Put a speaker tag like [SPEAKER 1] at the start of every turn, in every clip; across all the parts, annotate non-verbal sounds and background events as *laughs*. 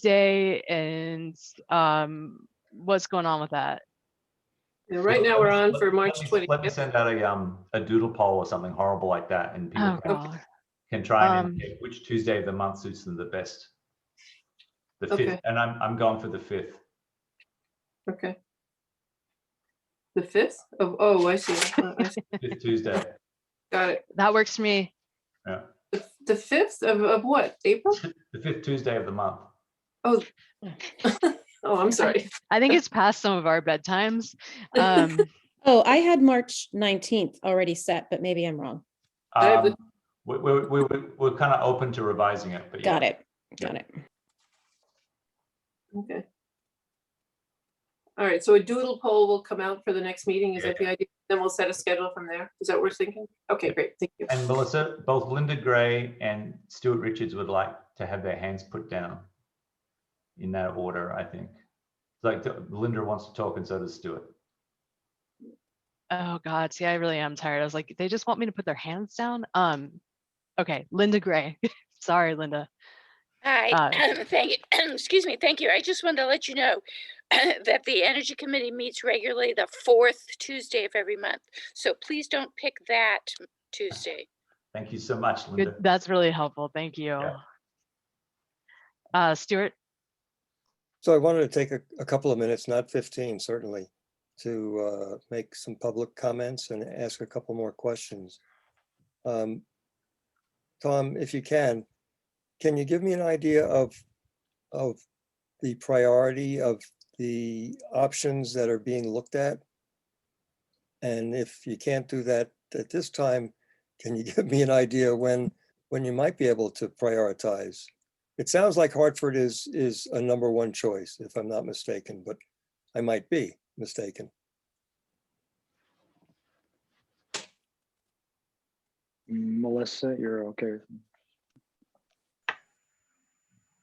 [SPEAKER 1] Tuesday and um, what's going on with that?
[SPEAKER 2] And right now, we're on
[SPEAKER 3] Let-
[SPEAKER 2] for March
[SPEAKER 3] let me- Let me
[SPEAKER 2] 20th.
[SPEAKER 3] send out a, um, a doodle poll or something horrible like that and people
[SPEAKER 1] Oh,
[SPEAKER 3] can-
[SPEAKER 1] God.
[SPEAKER 3] can try and
[SPEAKER 1] Um,
[SPEAKER 3] pick which Tuesday of the month suits them the best. The fifth,
[SPEAKER 2] Okay.
[SPEAKER 3] and I'm, I'm going for the fifth.
[SPEAKER 2] Okay. The 5th? Oh, oh, I see. Uh, I
[SPEAKER 3] *laughs*
[SPEAKER 2] see.
[SPEAKER 3] Fifth Tuesday.
[SPEAKER 2] Got it.
[SPEAKER 1] That works for me.
[SPEAKER 2] The- The 5th of, of what? April?
[SPEAKER 3] The fifth Tuesday of the month.
[SPEAKER 2] Oh, I'm sorry.
[SPEAKER 1] I think it's past some of our bedtimes.
[SPEAKER 4] *laughs*
[SPEAKER 1] Um,
[SPEAKER 5] Oh, I had March nineteenth already set, but maybe I'm wrong.
[SPEAKER 2] I have the-
[SPEAKER 3] Um, We, we, we, we- we're kind of open to revising it, but yeah.
[SPEAKER 5] Got it. Got it.
[SPEAKER 2] Okay. *laughs* All right, so a doodle poll will come out for the next meeting. Is that the idea? Then we'll set a schedule from there. Is that what we're thinking? Okay, great. Thank you.
[SPEAKER 3] And Melissa, both Linda Gray and Stuart Richards would like to have their hands put down in that order, I think. Like Linda wants to talk and so does Stuart.
[SPEAKER 1] oh God, see, I really am tired. I was like, they just want me to put their hands down. Um, okay, Linda Gray. *laughs* Sorry, Linda.
[SPEAKER 6] Hi, *clears throat* thank you, excuse me, thank you. I just wanted to let you know *clears throat* that the Energy Committee meets regularly the fourth Tuesday of every month. So please don't pick that Tuesday.
[SPEAKER 3] Thank you so much, Linda.
[SPEAKER 1] Good. That's really helpful. Thank you. Uh, Stuart,
[SPEAKER 4] So I wanted to take a, a couple of minutes, not fifteen certainly, to uh, make some public comments and ask a couple more questions. Um, Tom, if you can, can you give me an idea of, of the priority of the options that are being looked at? And if you can't do that at this time, can you *laughs* give me an idea when, when you might be able to prioritize? It sounds like Hartford is, is a number one choice, if I'm not mistaken, but I might be mistaken.
[SPEAKER 7] Melissa, you're okay. with me?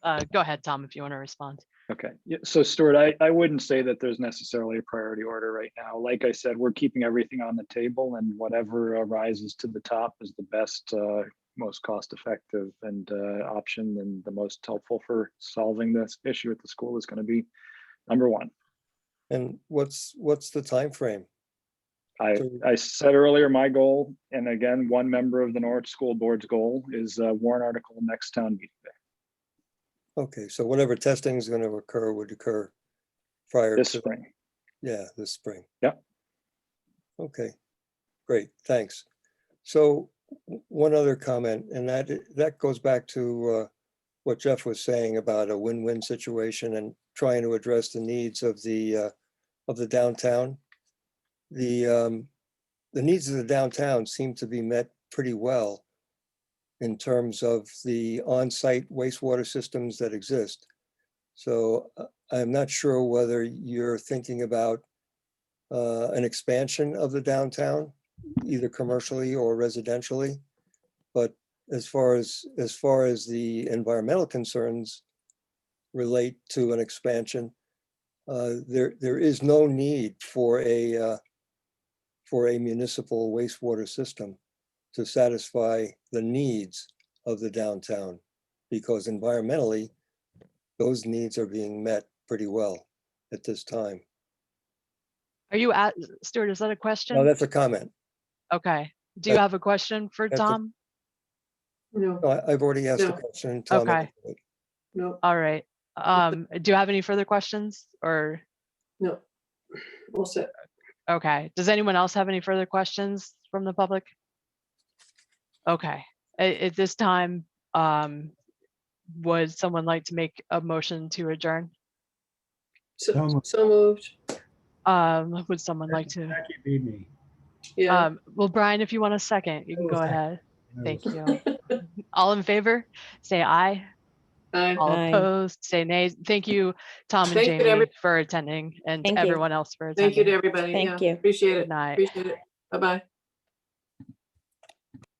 [SPEAKER 1] uh, go ahead, Tom, if you want to respond.
[SPEAKER 7] Okay, yeah, so Stuart, I, I wouldn't say that there's necessarily a priority order right now. Like I said, we're keeping everything on the table and whatever uh, rises to the top is the best, uh, most cost-effective and, uh, option and the most helpful for solving this issue at the school is gonna be number one.
[SPEAKER 4] And what's, what's the timeframe?
[SPEAKER 7] I,
[SPEAKER 4] So-
[SPEAKER 7] I said earlier, my goal, and again, one member of the Norwich School Board's goal is, uh, warrant article next town meeting day.
[SPEAKER 4] Okay, so whatever testing is going to occur would occur prior
[SPEAKER 7] this
[SPEAKER 4] to,
[SPEAKER 7] spring.
[SPEAKER 4] yeah, this spring.
[SPEAKER 7] Yep.
[SPEAKER 4] Okay, great, thanks. So w- one other comment, and that, i- that goes back to uh, what Jeff was saying about a win-win situation and trying to address the needs of the, uh, of the downtown. The, um, the needs of the downtown seem to be met pretty well in terms of the on-site wastewater systems that exist. So uh, I'm not sure whether you're thinking about uh, an expansion of the downtown, either commercially or residentially. But as far as, as far as the environmental concerns relate to an expansion, uh, there, there is no need for a, uh, for a municipal wastewater system to satisfy the needs of the downtown. Because environmentally, those needs are being met pretty well at this time.
[SPEAKER 1] Are you at, Stuart, is that a question?
[SPEAKER 4] Now, that's a comment.
[SPEAKER 1] Okay. Do
[SPEAKER 4] that-
[SPEAKER 1] you have a question for
[SPEAKER 4] that's a-
[SPEAKER 1] Tom?
[SPEAKER 2] No,
[SPEAKER 4] No, I- I've already asked the
[SPEAKER 2] No.
[SPEAKER 4] question. and Tom
[SPEAKER 1] Okay.
[SPEAKER 4] answered it.
[SPEAKER 2] no,
[SPEAKER 1] All right. Um, do you have any further questions or,
[SPEAKER 2] no. All set.
[SPEAKER 1] okay, does anyone else have any further questions from the public? Okay, at, at this time, um, would someone like to make a motion to adjourn?
[SPEAKER 8] So
[SPEAKER 2] So
[SPEAKER 8] moved.
[SPEAKER 2] so moved.
[SPEAKER 1] Um, would someone like to,
[SPEAKER 8] Jackie beat me.
[SPEAKER 2] Yeah.
[SPEAKER 1] um, well, Brian, if you want a second, you can
[SPEAKER 8] Oh,
[SPEAKER 1] go
[SPEAKER 8] second.
[SPEAKER 1] ahead. Thank you. All in favor, say aye.
[SPEAKER 2] Aye.
[SPEAKER 1] All
[SPEAKER 5] Aye.
[SPEAKER 1] opposed, say nay. Thank you, Tom and
[SPEAKER 2] Thank you to
[SPEAKER 1] Jamie,
[SPEAKER 2] every-
[SPEAKER 1] for attending and
[SPEAKER 5] Thank you.
[SPEAKER 1] everyone else for
[SPEAKER 2] Thank you to
[SPEAKER 1] attending.
[SPEAKER 2] everybody.
[SPEAKER 5] Thank
[SPEAKER 2] Yeah,
[SPEAKER 5] you.
[SPEAKER 2] Appreciate
[SPEAKER 1] Good
[SPEAKER 2] it.
[SPEAKER 1] night.
[SPEAKER 2] Appreciate it. Bye-bye.